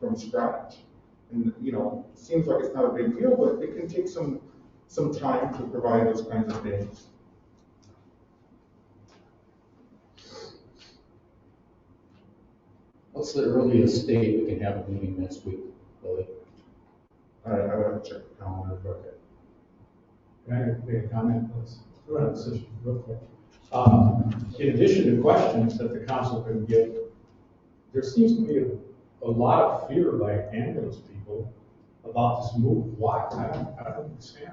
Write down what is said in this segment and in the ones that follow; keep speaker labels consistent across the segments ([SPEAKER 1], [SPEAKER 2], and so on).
[SPEAKER 1] from scratch. And, you know, seems like it's not a big deal, but it can take some, some time to provide those kinds of things.
[SPEAKER 2] What's the earliest date we can have a meeting next week, Billy?
[SPEAKER 1] I, I would check the calendar, but.
[SPEAKER 3] Can I make a comment, please? Go ahead, Sis, real quick. Um, In addition to questions that the council can get, there seems to be a, a lot of fear by ambulance people about this move. Why? I don't, I don't understand.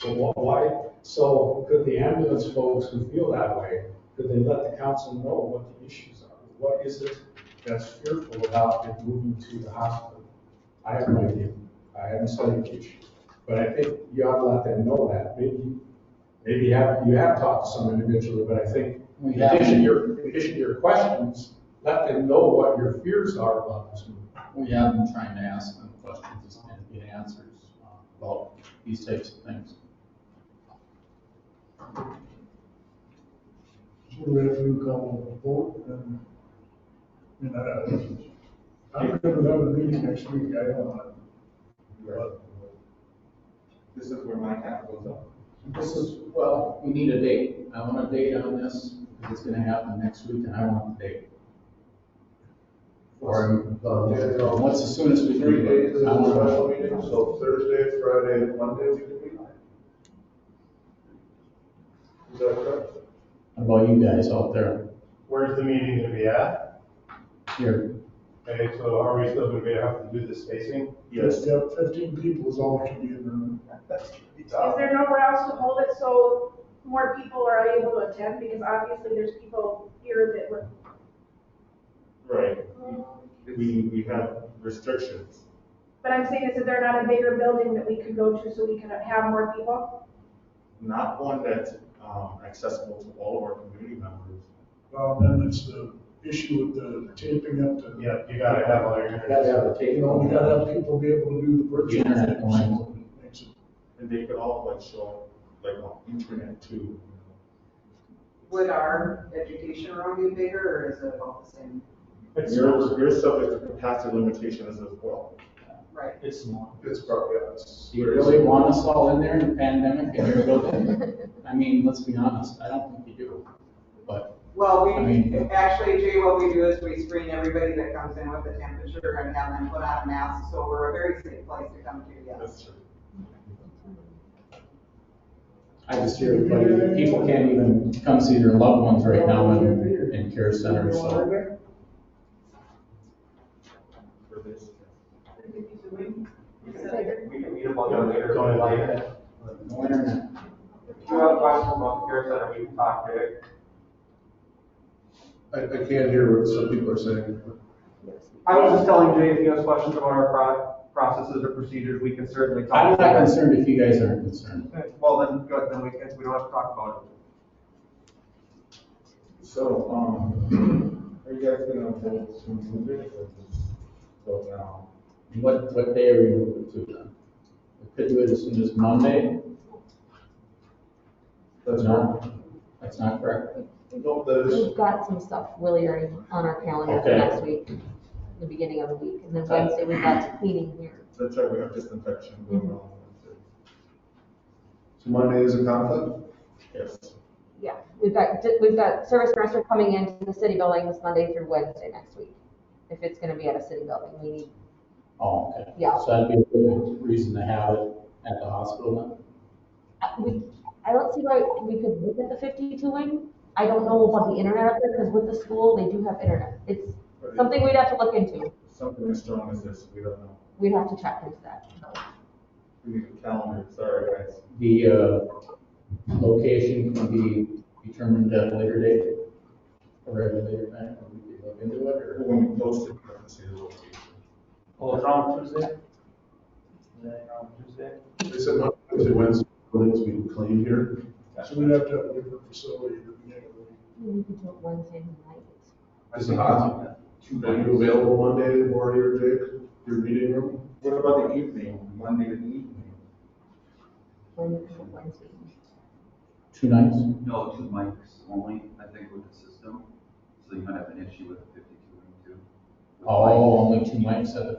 [SPEAKER 3] But wh- why, so could the ambulance folks who feel that way, could they let the council know what the issues are? What is it that's fearful about it moving to the hospital? I have no idea. I haven't studied the issue. But I think you ought to let them know that. Maybe, maybe you have, you have talked to some individually, but I think
[SPEAKER 2] We
[SPEAKER 3] in
[SPEAKER 2] have.
[SPEAKER 3] addition to your, in addition to your questions, let them know what your fears are about this move.
[SPEAKER 2] We have been trying to ask them questions and get answers uh, about these types of things.
[SPEAKER 4] We're gonna do a couple of vote and, and, uh, I'm gonna have a meeting next week, I don't know. But
[SPEAKER 1] This is where my hat goes up.
[SPEAKER 2] This is, well, we need a date. I want a date on this, because it's gonna happen next week, and I want the date. Or, uh, what's the soonest we can
[SPEAKER 5] Three
[SPEAKER 2] do it?
[SPEAKER 5] days is
[SPEAKER 2] I
[SPEAKER 5] a
[SPEAKER 2] want
[SPEAKER 5] special meeting, so Thursday, Friday, and Monday we can meet. Is that correct?
[SPEAKER 2] How About you guys out there,
[SPEAKER 5] Where's the meeting gonna be at?
[SPEAKER 2] here,
[SPEAKER 5] Okay, so are we still gonna be, have to do the spacing?
[SPEAKER 4] just have fifteen people is all we can be in the room.
[SPEAKER 3] Um,
[SPEAKER 6] Is there nowhere else to hold it so more people are able to attend? Because obviously there's people here that would.
[SPEAKER 1] Right. We, we have restrictions.
[SPEAKER 6] But I'm saying, is that there not a bigger building that we could go to so we can have more people?
[SPEAKER 1] not one that's um, accessible to all of our community members.
[SPEAKER 4] Well, then it's the issue with the taping up the.
[SPEAKER 5] Yeah, you gotta have all your
[SPEAKER 2] Gotta have
[SPEAKER 5] internet.
[SPEAKER 2] a
[SPEAKER 4] You
[SPEAKER 2] tape.
[SPEAKER 4] know, we gotta have people be able to do the virtual
[SPEAKER 2] Yeah.
[SPEAKER 4] things. Makes it-
[SPEAKER 1] And they could all like show up like on internet too. you know.
[SPEAKER 7] Would our education room be bigger or is it about the same?
[SPEAKER 1] You're, you're subject to capacity limitations as well.
[SPEAKER 7] Right.
[SPEAKER 3] It's not.
[SPEAKER 5] It's probably us.
[SPEAKER 2] Do you really want us all in there in the pandemic in your building? I mean, let's be honest, I don't think you do, but
[SPEAKER 7] Well,
[SPEAKER 2] I
[SPEAKER 7] we,
[SPEAKER 2] mean-
[SPEAKER 7] actually, Jay, what we do is we screen everybody that comes in with a temperature and have them put on a mask, so we're a very safe place to come to, yes.
[SPEAKER 1] true.
[SPEAKER 2] I just hear everybody, people can't even come see their loved ones right now in, in care centers, so.
[SPEAKER 1] For this.
[SPEAKER 8] We can meet up on the later.
[SPEAKER 5] Going later.
[SPEAKER 2] No internet.
[SPEAKER 8] If you have questions about the care center, we can talk to it.
[SPEAKER 5] I, I can't hear what some people are saying.
[SPEAKER 8] I was just telling Jay, if you have questions about our pro- processes or procedures, we can certainly
[SPEAKER 2] I'm
[SPEAKER 8] talk.
[SPEAKER 2] not
[SPEAKER 8] about it.
[SPEAKER 2] concerned if you guys aren't concerned.
[SPEAKER 8] Okay, Well, then, good, then we can, we don't have to talk about it.
[SPEAKER 1] So, um, are you guys gonna vote to move it or just vote now?
[SPEAKER 2] What, what day are we moving to then? We Could do it as soon as Monday?
[SPEAKER 1] That's
[SPEAKER 2] No, that's not correct.
[SPEAKER 5] No, that is,
[SPEAKER 9] We've got some stuff really already on our calendar for
[SPEAKER 2] Okay.
[SPEAKER 9] next week, the beginning of the week, and then Wednesday we've got cleaning here.
[SPEAKER 1] That's right, we have disinfection going on.
[SPEAKER 5] so Monday is a conflict?
[SPEAKER 1] Yes.
[SPEAKER 9] Yeah, we've got, we've got service master coming into the city building this Monday through Wednesday next week. If it's gonna be at a city building, we need,
[SPEAKER 2] Oh, okay.
[SPEAKER 9] Yeah.
[SPEAKER 2] So that'd be a good reason to have it at the hospital
[SPEAKER 9] I- uh, we, I don't see why we could look at the fifty-two wing. I don't know about the internet up there, because with the school, they do have internet. It's something we'd have to look into.
[SPEAKER 1] Something as strong as this, we don't know.
[SPEAKER 9] We'd have to check into that.
[SPEAKER 1] We need a calendar, sorry guys.
[SPEAKER 2] then? The, uh, location can be determined at a later date? Or at a later time, or we could look into it, or?
[SPEAKER 1] When we post it, we have to see the location.
[SPEAKER 8] Oh, it's on Tuesday? Tuesday?
[SPEAKER 5] They said Monday, Tuesday, Wednesday, buildings we can clean here.
[SPEAKER 4] So we'd have to have a different facility at the beginning of the week.
[SPEAKER 9] We could do it Wednesday night.
[SPEAKER 5] Is it hot? Are you available Monday, Marty or Jake, your meeting room?
[SPEAKER 1] What about the evening, Monday to evening?
[SPEAKER 9] Wednesday, Wednesday.
[SPEAKER 2] Two nights?
[SPEAKER 10] No, two mics only, I think, with the system, so you might have an issue with the fifty-two and two.
[SPEAKER 2] Oh, only two mics at the